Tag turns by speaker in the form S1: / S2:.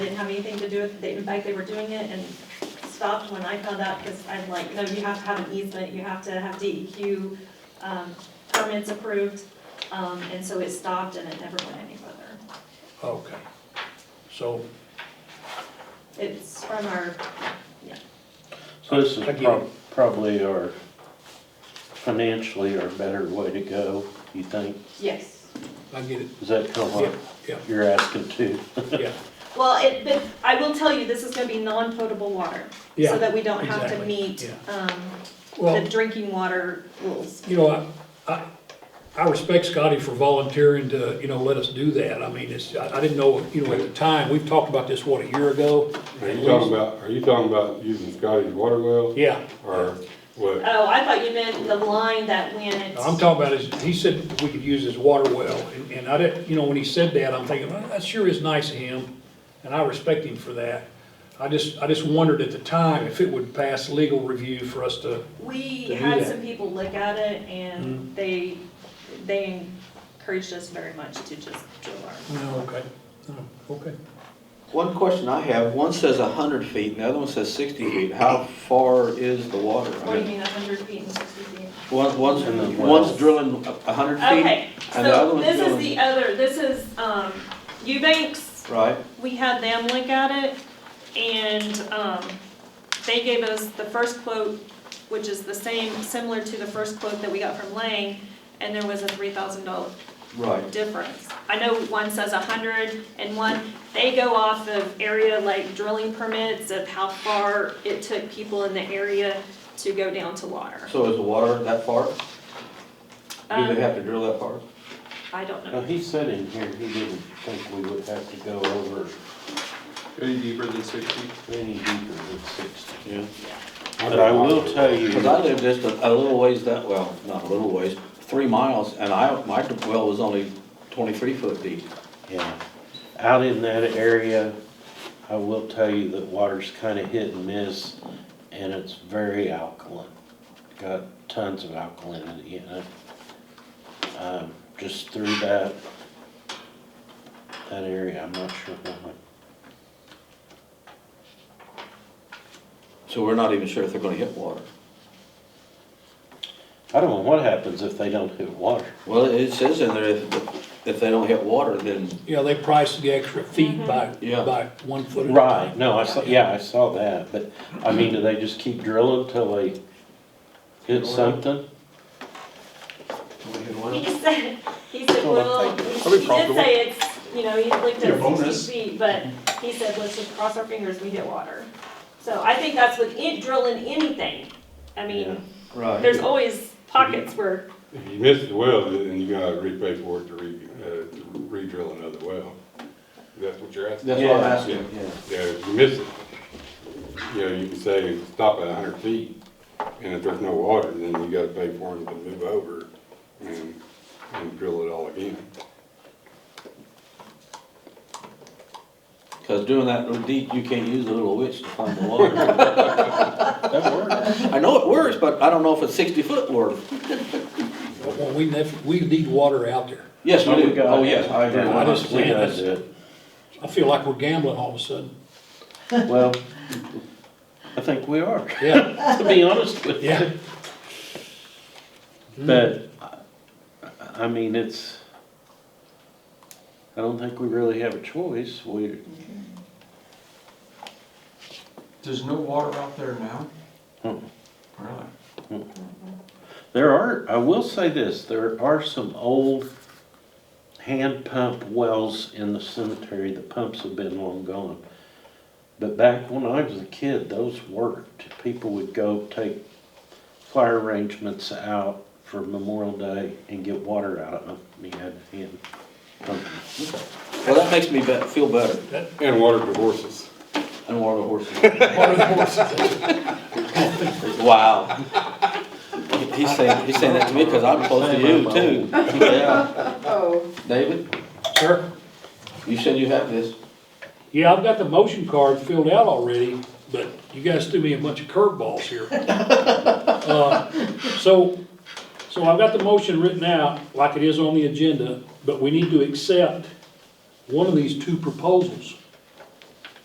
S1: have anything to do with it, They- in fact, they were doing it and stopped when I found out, because I'm like, no, you have to have an easement, you have to have DEQ um, permits approved, Um, and so it stopped and it never went any further.
S2: Okay. So
S1: It's from our,
S3: So this is
S2: I get
S3: prob- probably our, financially our better way to go, you think?
S1: yes.
S2: I get it.
S3: Is that kind of
S2: Yeah,
S3: what
S2: yeah,
S3: you're asking too?
S2: yeah.
S1: Well, it, but I will tell you, this is gonna be non-potable water,
S2: Yeah,
S1: so that we don't have to
S2: exactly,
S1: meet
S2: yeah.
S1: um, the
S2: Well,
S1: drinking water rules.
S2: you know, I, I, I respect Scotty for volunteering to, you know, let us do that. I mean, it's, I, I didn't know, you know, at the time, we've talked about this, what, a year ago?
S4: Are you talking about, are you talking about using Scotty's water well?
S2: Yeah.
S4: Or what?
S1: Oh, I thought you meant the line that went.
S2: I'm talking about is, he said we could use his water well, and, and I didn't, you know, when he said that, I'm thinking, well, that sure is nice of him, and I respect him for that. I just, I just wondered at the time if it would pass legal review for us to,
S1: We
S2: to do
S1: had
S2: that. Mm-hmm.
S1: some people look at it and they, they encouraged us very much to just drill our.
S2: no, okay, no, okay.
S5: One question I have, one says hundred feet and the other one says sixty feet. How far is the water? I
S1: What do you
S5: mean,
S1: mean, hundred feet and sixty feet?
S5: One, one's,
S3: And then wells.
S5: one's drilling hundred feet
S1: Okay,
S5: and the other
S1: so
S5: one's
S1: this is
S5: drilling-
S1: the other, this is, um, Eubanks,
S5: Right,
S1: we had them look at it and, um, they gave us the first quote, which is the same, similar to the first quote that we got from Lang, and there was a three thousand dollar
S5: right.
S1: difference. I know one says a hundred and one, they go off of area like drilling permits of how far it took people in the area to go down to water.
S5: So is the water that far? Do
S1: Um,
S5: they have to drill that far?
S1: I don't
S3: Now,
S1: know.
S3: he said in here he didn't think we would have to go over
S6: Any deeper than sixty?
S3: any deeper than sixty.
S5: Yeah.
S3: But I will tell
S5: Because I
S3: you,
S5: live just a, a little ways that, well, not a little ways, three miles, and I, my well was only twenty-three foot deep.
S3: yeah, out in that area, I will tell you that water's kinda hit and miss and it's very alkaline. Got tons of alkalinity in it. Um, just through that, that area, I'm not sure why.
S5: So we're not even sure if they're gonna hit water.
S3: I don't know what happens if they don't hit water.
S5: Well, it says in there, if, if they don't hit water, then
S2: Yeah, they priced the extra feet by,
S5: Yeah.
S2: by one foot. at a
S3: Right,
S2: time.
S3: no, I saw, yeah, I saw that, but, I mean, do they just keep drilling till they hit something?
S1: He said, he said,
S3: Well,
S1: well,
S3: thank
S6: That'd be
S1: he he did
S6: profitable.
S1: say it's, you know, he looked
S6: Your
S1: at
S6: bonus.
S1: sixty feet, but he said, let's just cross our fingers, we hit water. So I think that's with it drilling anything. I
S3: Yeah.
S1: mean,
S5: Right.
S1: there's always pockets where,
S4: If you miss the well, then you gotta repay for it to re, uh, to re-drill another well. That's what you're asking?
S5: That's what I'm
S3: Yeah.
S5: asking, yeah.
S4: Yeah, if you miss it, you know, you can say, stop at hundred feet, and if there's no water, then you gotta pay for them to move over and, and drill it all again.
S5: Because doing that little deep, you can't use the little witch to find the water.
S3: That works.
S5: I know it works, but I don't know if it's sixty foot worth.
S2: Well, we nef, we need water out there.
S5: Yes, we
S3: Oh, we
S5: do.
S3: got
S5: Oh,
S3: it.
S5: yes, I agree.
S3: Yeah,
S2: I just-
S3: We gotta do it.
S2: I feel like we're gambling all of a sudden.
S3: Well, I think we are,
S2: Yeah,
S3: to be honest with you.
S2: yeah.
S3: But, I- I mean, it's, I don't think we really have a choice. We,
S7: There's no water out there now?
S3: Mm.
S7: Really?
S3: There are, I will say this, there are some old hand pump wells in the cemetery, the pumps have been long gone. But back when I was a kid, those worked. People would go take fire arrangements out for Memorial Day and get water out of them, and you had to hand pump them.
S5: Well, that makes me be- feel better
S4: And water to horses.
S5: than water horses.
S2: Water the horses.
S5: Wow. He's saying, he's saying that to me because I'm close to you too. Yeah.
S8: Oh,
S5: David,
S2: Sir?
S5: you said you have this.
S2: Yeah, I've got the motion card filled out already, but you guys threw me a bunch of curveballs here. Uh, So, so I've got the motion written out like it is on the agenda, but we need to accept one of these two proposals.